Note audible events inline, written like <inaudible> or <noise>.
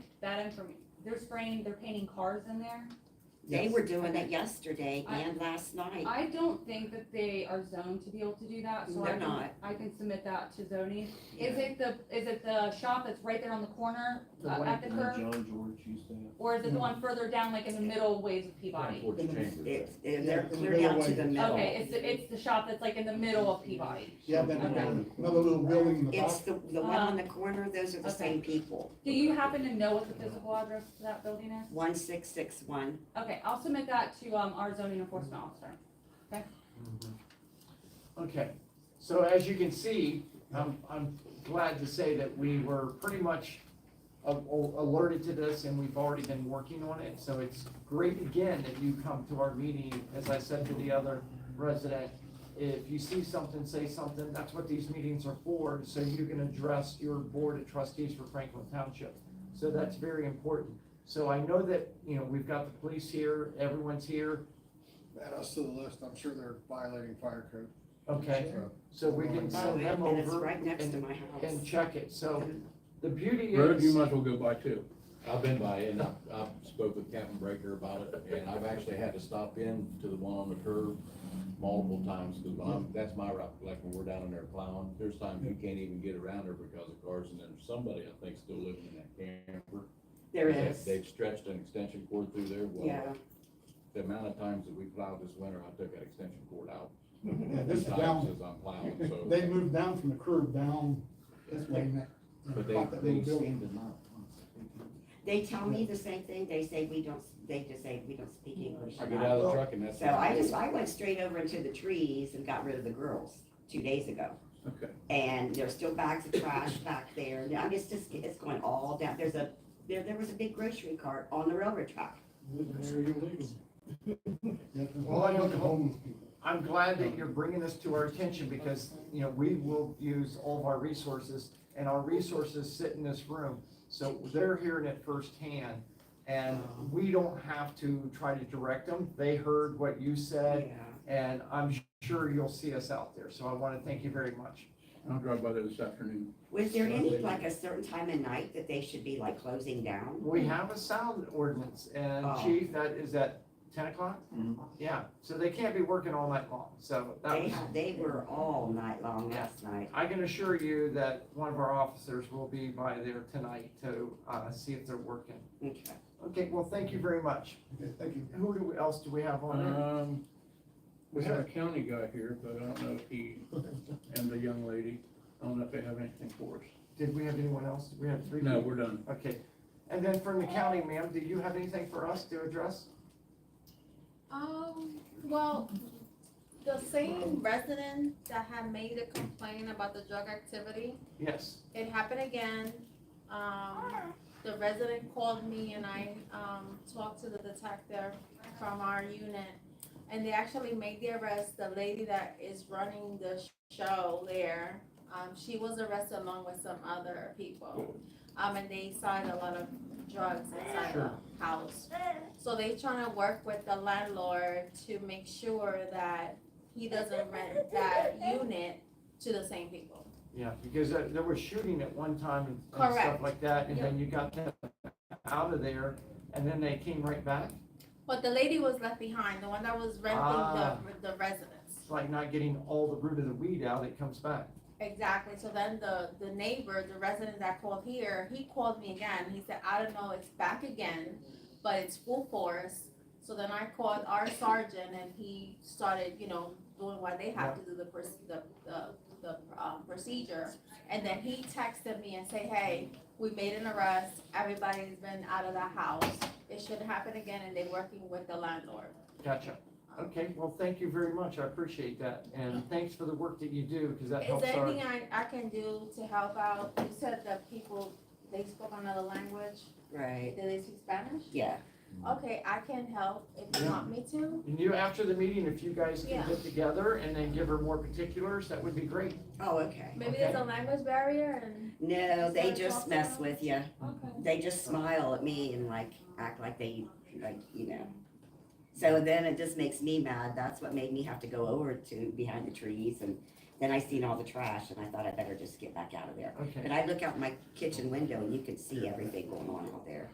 that inform, they're spraying, they're painting cars in there. They Yes. were doing it yesterday and last night. I don't think that they are zoned to be able to do that, so I They're can, not. I can submit that to zoning. Is Yeah. it the, is it the shop that's right there on the corner, The uh, one at the where curb? John George used to have. Or is it the one further down, like in the middle ways of Peabody? George changes it. It's, it- they're Yeah, clear middle down to way. the middle. Okay, it's, the- it's the shop that's like in the middle of Peabody. Yeah, then another another little building in the back. It's the, the Uh, one on the corner, those are the Okay. same people. Do you happen to know what the physical address to that building is? One six six one. Okay, I'll submit that to, um, our zoning enforcement officer. Okay, so as you can see, I'm, I'm glad to say that we were pretty much a- a- alerted to this and we've already been working on it. So it's great again that you come to our meeting, as I said to the other resident. If you see something, say something. That's what these meetings are for, so you can address your board of trustees for Franklin Township. So that's very important. So I know that, you know, we've got the police here, everyone's here. Add us to the list, I'm sure they're violating fire code. Okay, So, so we can Uh, Oh, send them over. and it's right next and- to my and house. check it, so the beauty Road, you is, might as well go by too. I've been by it, and I've, I've spoke with Captain Breaker about it, and I've actually had to stop in to the one on the curb multiple times, because I'm, Mm-hmm. that's my route, like when we're down in there plowing, there's times you can't even get around there because of cars, and then somebody, I think, still living in that camper. There They- is, They've stretched an extension cord through there, yeah. well, the amount of times that we plowed this winter, I took that extension cord out. Yeah, this is Times down, As I'm plowing, so. they moved down from the curb down this way. and that- But they, That they little building. seem to not. They tell me the same thing, they say we don't, they just say we don't speak English. I get out of the truck and that's. So I just, I went straight over into the trees and got rid of the girls two days ago. Okay. And there's still bags of trash back there, and I mean, it's just, it's going all down, there's a, there, there was a big grocery cart on the railroad track. They're illegal. <laughs> Yeah, there's Well, I all don't- the homeless people. I'm glad that you're bringing this to our attention, because, you know, we will use all of our resources, and our resources sit in this room, so they're hearing it firsthand, and we don't have to try to direct them, they heard what you said, and I'm sure you'll see us out there, so I wanna thank you very much. I'll drive by there this afternoon. Was there any, like, a certain time of night that they should be, like, closing down? We have a sound ordinance, and Oh. chief, that is at ten o'clock? Mhm. Yeah, so they can't be working all night long, so that They, was. had- they were all night long last night. I can assure you that one of our officers will be by there tonight to, uh, see if they're working. Okay. Okay, well, thank you very much. Okay, Thank you. Who do- else do we have on there? Um, we have a county guy here, but I don't know if he, and the young lady, I don't know if they have anything for us. Did we have anyone else? Did we have three? No, people? we're done. Okay, and then from the county, ma'am, do you have anything for us to address? Um, well, the same resident that had made a complaint about the drug activity, Yes, it happened again. Um, the resident called me and I, um, talked to the detective from our unit. And they actually made the arrest, the lady that is running the show there, um, she was arrested along with some other people. Um, and they signed a lot of drugs inside Sure. the house. So they trying to work with the landlord to make sure that he doesn't rent that unit to the same people. yeah, because there, there was shooting at one time and and stuff Correct. like that, and then you got them out of there, and then they came right back? But the lady was left behind, the one that was Ah. renting the, the residence. It's like not getting all the root of the weed out, it comes back. Exactly, so then the, the neighbor, the resident that called here, he called me again, he said, I don't know, it's back again, but it's full force. So then I called our sergeant and he started, you know, doing what they have to do, the, proce- the, the, the, um, procedure. And then he texted me and say, hey, we made an arrest, everybody's been out of the house, it shouldn't happen again, and they're working with the landlord. Gotcha. Okay, well, thank you very much. I appreciate that. And thanks for the work that you do because that Is helps there our. anything I, I can do to help out? You said that people, they spoke another language. Right, Did they speak Spanish? yeah. Okay, I can help if you Yeah. want me to. And you, after the meeting, if you guys can Yeah. get together and then give her more particulars, that would be great. Oh, okay. Maybe there's a language barrier and. No, they Is that just possible? mess with you. Okay. They just smile at me and like, act like they, like, you know. So then it just makes me mad. That's what made me have to go over to behind the trees and then I seen all the trash and I thought I better just get back out of there. Okay. And I look out my kitchen window and you can see everything going on out there.